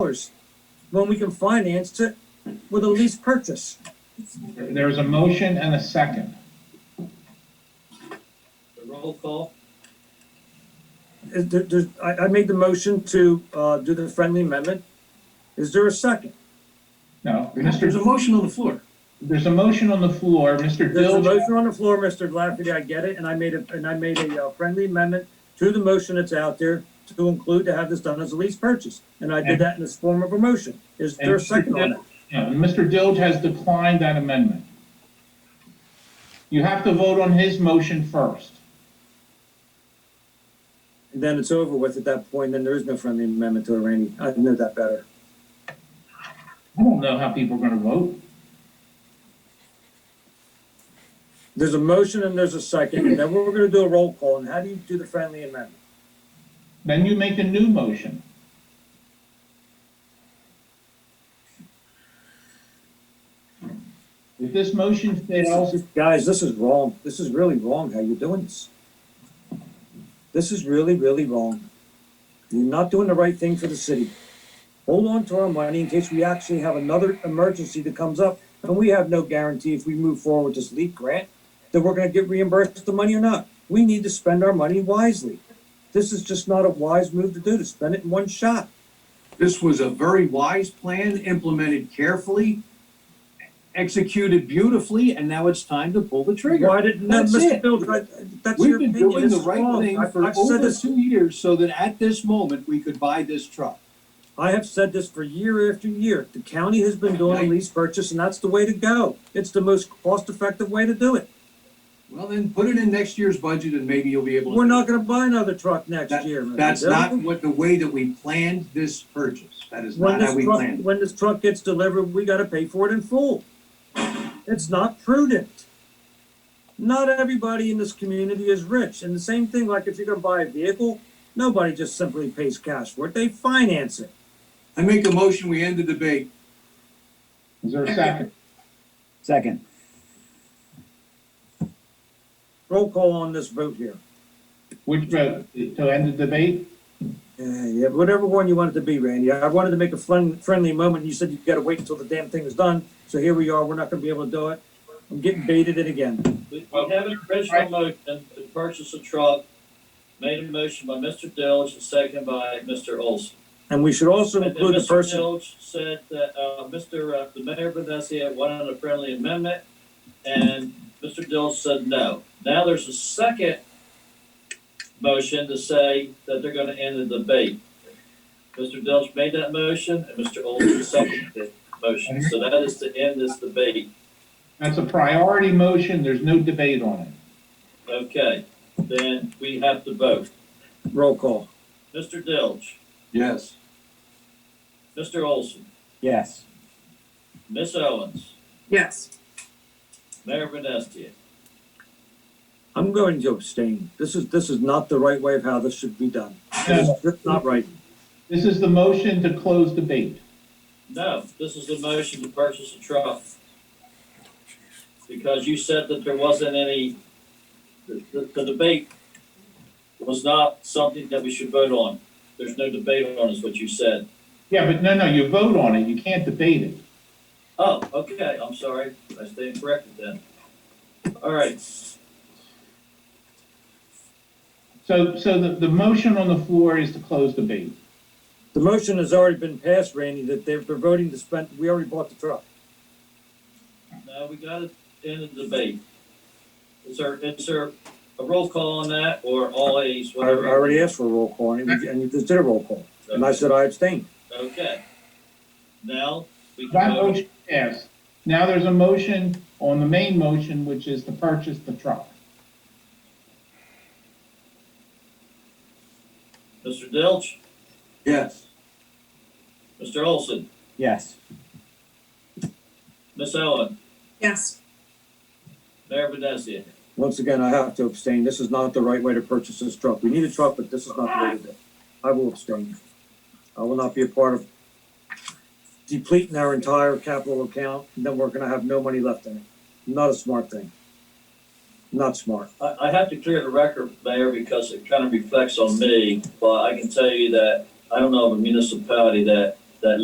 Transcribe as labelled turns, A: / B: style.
A: dollars when we can finance it with a lease purchase.
B: There is a motion and a second.
C: The roll call,
A: Is there, there's, I, I made the motion to, uh, do the friendly amendment. Is there a second?
B: No,
D: There's
B: Mr.,
D: a motion on the floor.
B: there's a motion on the floor, Mr.
A: There's a
B: Dilge.
A: motion on the floor, Mr. Lafferty, I get it, and I made a, and I made a uh, friendly amendment to the motion that's out there to include to have this done as a lease purchase, and I did that in this form of a motion. Is there a
B: and
A: second on it?
B: Yeah, and Mr. Dilge has declined that amendment. You have to vote on his motion first.
A: And then it's over with at that point, then there is no friendly amendment to it, Randy. I know that better.
B: I don't know how people are gonna vote.
A: There's a motion and there's a second, and then we're gonna do a roll call, and how do you do the friendly amendment?
B: Then you make a new motion. If this motion fails,
A: Guys, this is wrong. This is really wrong how you're doing this. This is really, really wrong. You're not doing the right thing for the city. Hold on to our money in case we actually have another emergency that comes up, and we have no guarantee if we move forward with this leak grant that we're gonna get reimbursed the money or not. We need to spend our money wisely. This is just not a wise move to do, to spend it in one shot.
D: This was a very wise plan, implemented carefully, executed beautifully, and now it's time to pull the trigger.
A: Why didn't, no,
D: That's
A: Mr.
D: it.
A: Bill, I- that's
D: We've
A: your
D: been
A: opinion.
D: doing
A: This
D: the
A: is
D: right
A: wrong.
D: thing
A: I've-
D: for
A: I've said
D: over
A: this
D: two years so that at this moment, we could buy this truck.
A: I have said this for year after year. The county has been doing a lease purchase and that's the way to go. It's the most cost effective way to do it.
D: Well, then put it in next year's budget and maybe you'll be able to.
A: We're not gonna buy another truck next
D: That-
A: year. Mr.
D: That's
A: Bill.
D: not what, the way that we planned this purchase. That is
A: When
D: not how
A: this
D: we
A: truck,
D: planned. it.
A: when this truck gets delivered, we gotta pay for it in full. It's not prudent. Not everybody in this community is rich. And the same thing, like if you're gonna buy a vehicle, nobody just simply pays cash for it. They finance it.
D: I make a motion, we end the debate.
B: is there a second?
E: Second,
A: Roll call on this vote here.
B: Which vote, to end the debate?
A: Uh, yeah, whatever one you want it to be, Randy. I wanted to make a fun, friendly moment. You said you got to wait until the damn thing is done. So here we are. We're not going to be able to do it. I'm getting baited in again.
C: we, we have an original motion to purchase a truck, made a motion by Mr. Dilge and seconded by Mr. Olson.
A: And we should also
C: And- and
A: include the
C: Mr.
A: person.
C: Dilge said that, uh, Mr., uh, the mayor of Vinesia had wanted a friendly amendment, and Mr. Dilge said no. Now there's a second motion to say that they're gonna end the debate. Mr. Dilge made that motion, and Mr. Olson seconded the motion, so that is to end this debate.
B: That's a priority motion, there's no debate on it.
C: Okay, then we have to vote.
A: Roll call.
C: Mr. Dilge,
D: Yes.
C: Mr. Olson,
E: yes.
C: Miss Owens,
F: yes.
C: Mayor Vinestia.
A: I'm going to abstain. This is this is not the right way of how this should be done. This
B: No,
A: is just not right.
B: This is the motion to close debate.
C: No, this is the motion to purchase a truck. Because you said that there wasn't any, the, the- the debate was not something that we should vote on. There's no debate on, is what you said.
B: Yeah, but no, no, you vote on it, you can't debate it.
C: Oh, okay, I'm sorry, I stand corrected then. All right,
B: So, so the, the motion on the floor is to close debate.
A: The motion has already been passed, Randy. That they're, they're voting to spend. We already bought the truck.
C: now we gotta end the debate. Is there, is there a roll call on that, or all A's,
A: I, I
C: whatever?
A: already asked for a roll call, and, you- and you just did a roll call. And I said I abstain.
C: Okay. Now, we can
B: That
C: vote.
B: motion passed. Now there's a motion on the main motion, which is to purchase the truck.
C: Mr. Dilch,
D: Yes.
C: Mr. Olson,
E: Yes.
C: Miss Owen,
F: Yes.
C: Mayor Vinesia.
A: Once again, I have to abstain. This is not the right way to purchase this truck. We need a truck, but this is not the way to do it. I will abstain. I will not be a part of depleting our entire capital account, and then we're gonna have no money left in it. Not a smart thing. Not smart.
C: I, I have to clear the record, Mayor, because it kind of reflects on me, but I can tell you that I don't know of a municipality that